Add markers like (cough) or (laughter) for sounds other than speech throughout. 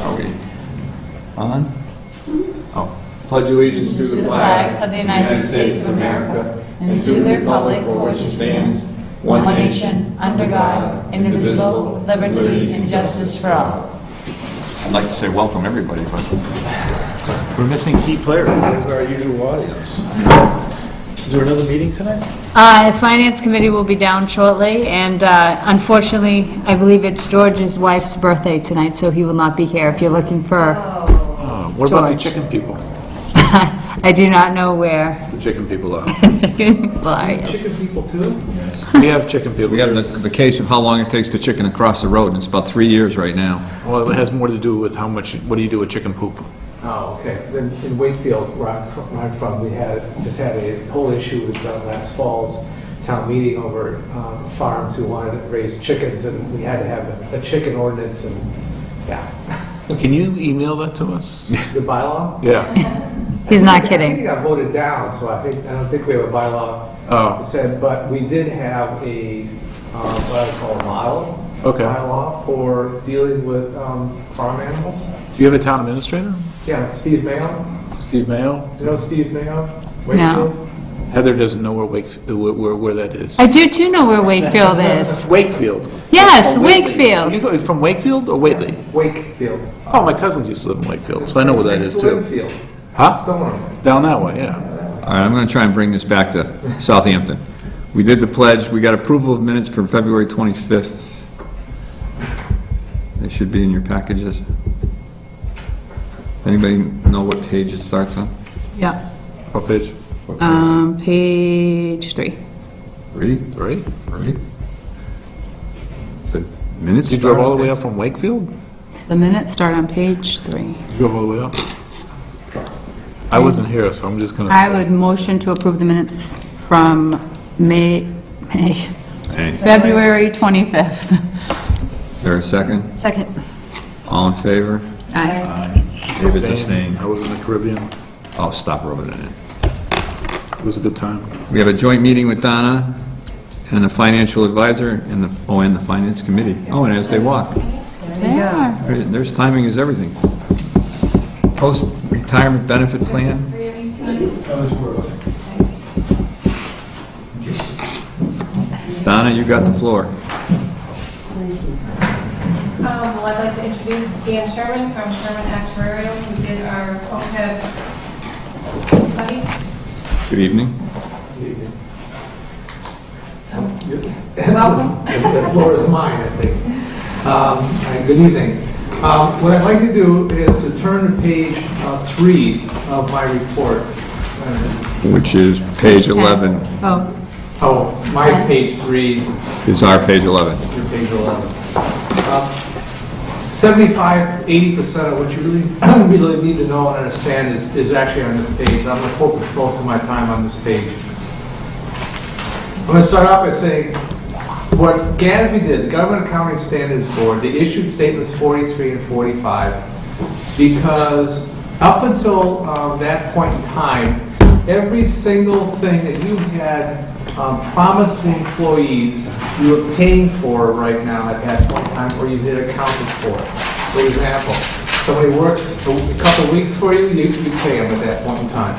Are we on? Oh, pledge allegiance to the flag of the United States of America and to the republic for which it stands, one nation, under God, indivisible, liberty, and justice for all. I'd like to say welcome, everybody, but We're missing key players. There's our usual audience. Is there another meeting tonight? Uh, The Finance Committee will be down shortly, and uh, unfortunately, I believe it's George's wife's birthday tonight, so he will not be here. If you're looking for, (laughs) Uh, What about the George. chicken people? I do not know where. The chicken people (laughs) are. Bless you. We have chicken people. we have the the case of how long it takes to chicken across the road, and it's about three years right now. Well, it has more to do with how much, what do you do with chicken poop? Oh, okay. In in Wakefield, where I'm fr- where I'm from, we had, just had a whole issue with uh, last fall's town meeting over um, farms who wanted to raise chickens, and we had to have a- a chicken ordinance, and, yeah, (laughs) Can you email that to us? the bylaw. (laughs) Yeah. He's I not think- I think it kidding. got voted down, so I think, I don't think we have a bylaw Oh. that said, but we did have a, um, what I call a model. Okay. Bylaw for dealing with um, farm animals. Do you have a town administrator? Yeah, Steve Mayo, Steve Mayo? you know Steve Mayo? No. Wakefield? Heather doesn't know where Wake, where, where- where that is. I do too know where Wakefield is. Wakefield. Yes, Oh, Whately. You Wakefield. go from Wakefield or Whately? Wakefield. Oh, my cousins used to live in Wakefield, so I know where that is too. Wakefield. Huh? Stoneham. Down that way, yeah. All right, I'm going to try and bring this back to Southampton. We did the pledge, we got approval of minutes from February 25th. They should be in your packages. Anybody know what page it starts on? Yeah. What page? Uh, Um, Page three. Three? Three? Three? The minutes? You drove all the way start up from Wakefield? The minutes start on page three. You drove all the way up? I wasn't here, so I'm just gonna. I say- would motion to approve the minutes from May, May, on page? Hey, February 25th. there a second? Second. All in favor? Aye. David's abstaining. I was in the Caribbean. I'll stop rubbing it in. It was a good time. We have a joint meeting with Donna and the financial advisor and the, oh, and the finance committee. Oh, and as they walk. Yeah. There- There's timing is everything. Post-retirement benefit plan, Donna, you got the floor. Um, Well, I'd like to introduce Dan Sherman from Sherman Actuarial, who did our OPEB study. Good evening. Welcome. The the floor is mine, I think. Um, and Good evening. Um, What I'd like to do is to turn to page uh, three of my report. Uh, Which is page 11, Oh, Oh, my page three, is our page 11. your page 11. Uh, 75, 80% of what you really, (clears throat) really need to know and understand is, is actually on this page. I'm going to focus most of my time on this page. I'm going to start off by saying, what GASB did, the Government Accounting Standards Board, they issued statements 43 and 45 because up until um, that point in time, every single thing that you had um, promised the employees you were paying for right now at that point in time, or you had accounted for. For example, somebody works a w- a couple of weeks for you, you you pay them at that point in time.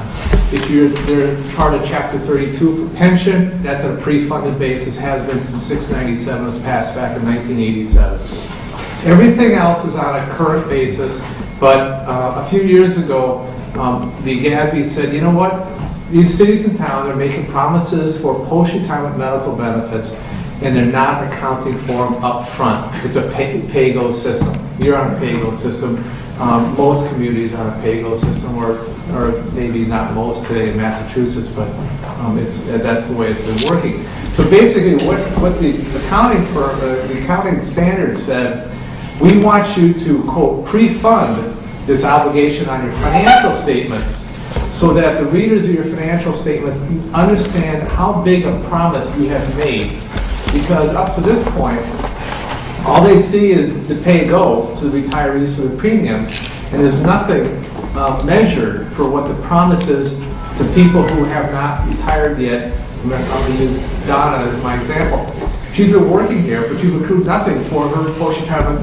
If you're, they're part of chapter 32 for pension, that's on a pre-funded basis, has been since 697, was passed back in 1987. Everything else is on a current basis, but uh, a few years ago, um, the GASB said, you know what? These cities and towns are making promises for post-retirement medical benefits, and they're not accounting for them up front. It's a pay- pay-go system. You're on a pay-go system. Um, Most communities are on a pay-go system, or, or maybe not most today in Massachusetts, but um, it's, that's the way it's been working. So basically, what, what the accounting firm, uh, the accounting standard said, we want you to quote, "pre-fund" this obligation on your financial statements, so that the readers of your financial statements understand how big a promise you have made. Because up to this point, all they see is the pay-go to the retirees for the premium, and there's nothing uh, measured for what the promise is to people who have not retired yet. I'm going to use Donna as my example. She's been working here, but you've accrued nothing for her post-retirement